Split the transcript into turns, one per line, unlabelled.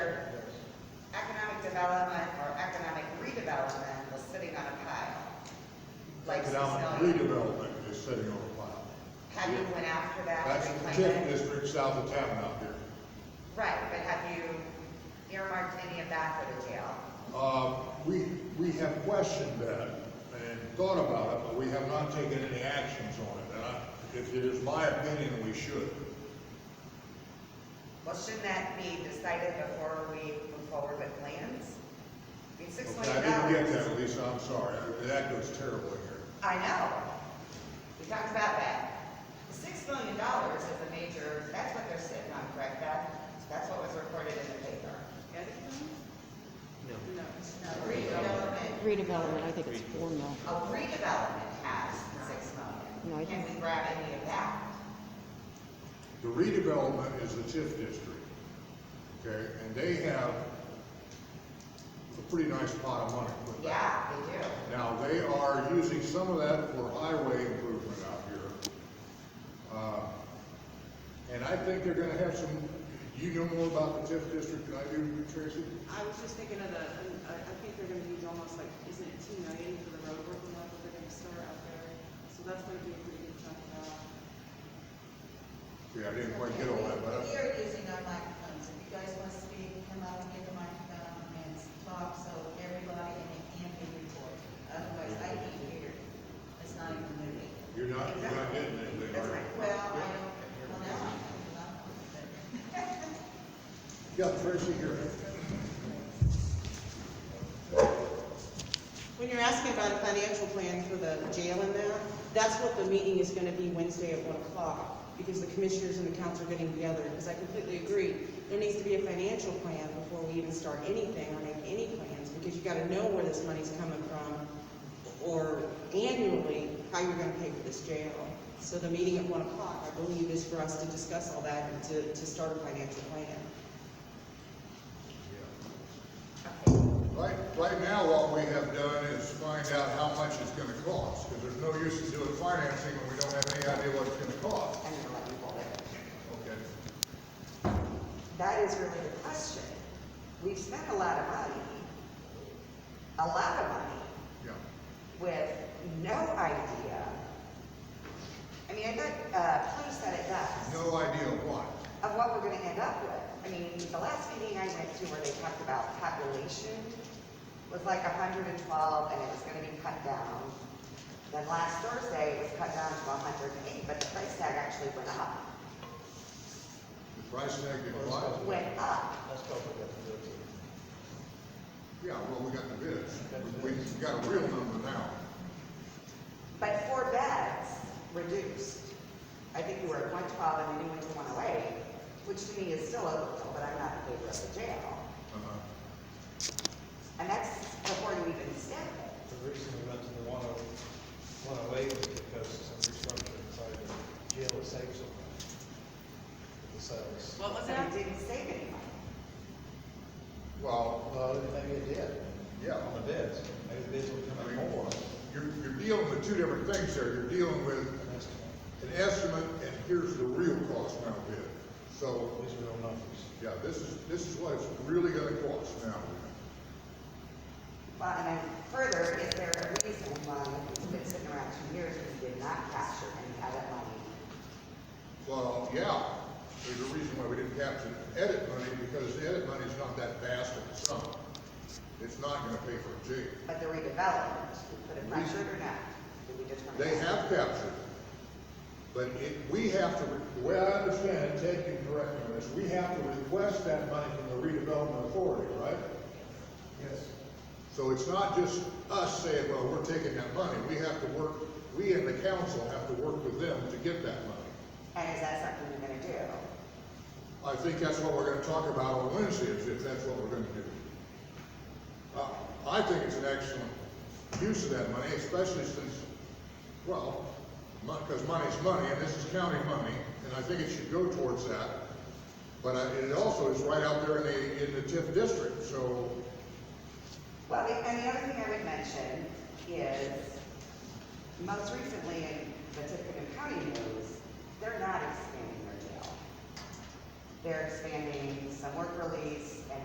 redevelopment or economic redevelopment was sitting on a pile. Like
Economic
Smithsonian.
redevelopment is sitting on a pile.
Have you went after that?
That's
and
the
reclaimed
TIF
it?
district south of town out there.
Right, but have you earmarked any of that for the jail?
Uh, we, we have questioned that and thought about it, but we have not taken any actions on it. And I, if it is my opinion, we should.
Well, shouldn't that be decided before we move forward with plans? I mean, six
Okay,
million
I
dollars.
didn't get that, Lisa, I'm sorry. That goes terribly here.
I know. We talked about that. The Six million dollars is a major, that's what they're sitting on, correct, Beth? That's what was reported in the paper.
No.
A redevelopment,
Redevelopment, I think it's four mil.
a redevelopment has six
No, I
million. Can we grab any of that?
The redevelopment is the TIF district, okay? And they have a pretty nice pot of money put
Yeah,
back.
they do.
Now, they are using some of that for highway improvement out here. Uh, And I think they're gonna have some, you know more about the TIF district than I do, Tracy?
I was just thinking of the, I I think they're gonna use almost like, isn't it two million for the road work and that they're gonna start out there? So that's gonna be a pretty good chunk of that.
Yeah, I didn't quite get all that, but
We
I-
are using our microphones, if you guys want to speak, come up and get the microphone and talk, so everybody, and it can be recorded. Otherwise, I can't hear, it's not even moving.
you're not, you're not getting anything,
That's
are you?
right.
Well, I don't, well, now I can, but
You got Tracy here.
When you're asking about a financial plan for the jail in there, that's what the meeting is gonna be Wednesday at one o'clock, because the commissioners and the council are getting together, because I completely agree, there needs to be a financial plan before we even start anything or make any plans, because you gotta know where this money's coming from, or annually, how you're gonna pay for this jail. So the meeting at one o'clock, I believe, is for us to discuss all that and to, to start a financial plan.
Right, right now, what we have done is find out how much it's gonna cost, because there's no use in doing financing when we don't have any idea what it's gonna cost.
I'm gonna let you hold it.
Okay.
That is really the question. We've spent a lot of money, a lot of money,
Yeah.
with no idea. I mean, I bet, uh, Tony said it best,
No idea what.
of what we're gonna end up with. I mean, the last meeting I went to where they talked about population was like hundred and twelve, and it was gonna be cut down. Then last Thursday, it was cut down to hundred and eight, but the price tag actually went up,
The price tag declined.
went up.
Let's go with the thirteen.
Yeah, well, we got the bids. We we got a real number now.
But four beds reduced. I think you were at one twelve and then you went to one oh eight, which to me is still overkill, but I'm not in favor of the jail.
Uh-huh.
And that's before you even step it.
The reason we went to the one oh, one oh eight was because of some restructuring inside the jail that saves them. The cells.
What
But it didn't save any money.
Well,
Well, maybe it did.
Yeah.
On the bids, maybe the bids will come in more.
you're, you're dealing with two different things there. You're dealing with
An estimate.
an estimate and here's the real cost now bid. So,
These are real numbers.
yeah, this is, this is what it's really gonna cost now.
Well, and then further, is there a reason why it's been sitting around two years and you did not capture any of that money?
Well, yeah, there's a reason why we didn't capture edit money because the edit money is not that vast of a sum. It's not gonna pay for a jail.
But the redevelopment, we put it pressured or not? Did we determine?
They
that?
have captured it. But it, we have to, the way I understand it, Ted can correct me on this, we have to request that money from the redevelopment authority, right?
Yes.
So it's not just us saying, well, we're taking that money, we have to work, we and the council have to work with them to get that money.
And is that something you're gonna do?
I think that's what we're gonna talk about on Wednesday, is if that's what we're gonna do. Uh, I think it's an excellent use of that money, especially since, well, because money's money, and this is county money, and I think it should go towards that. But I- it also is right out there in the, in the TIF district, so,
Well, the- and the other thing I would mention is, most recently in the Tiffin County news, they're not expanding their jail. They're expanding some work release and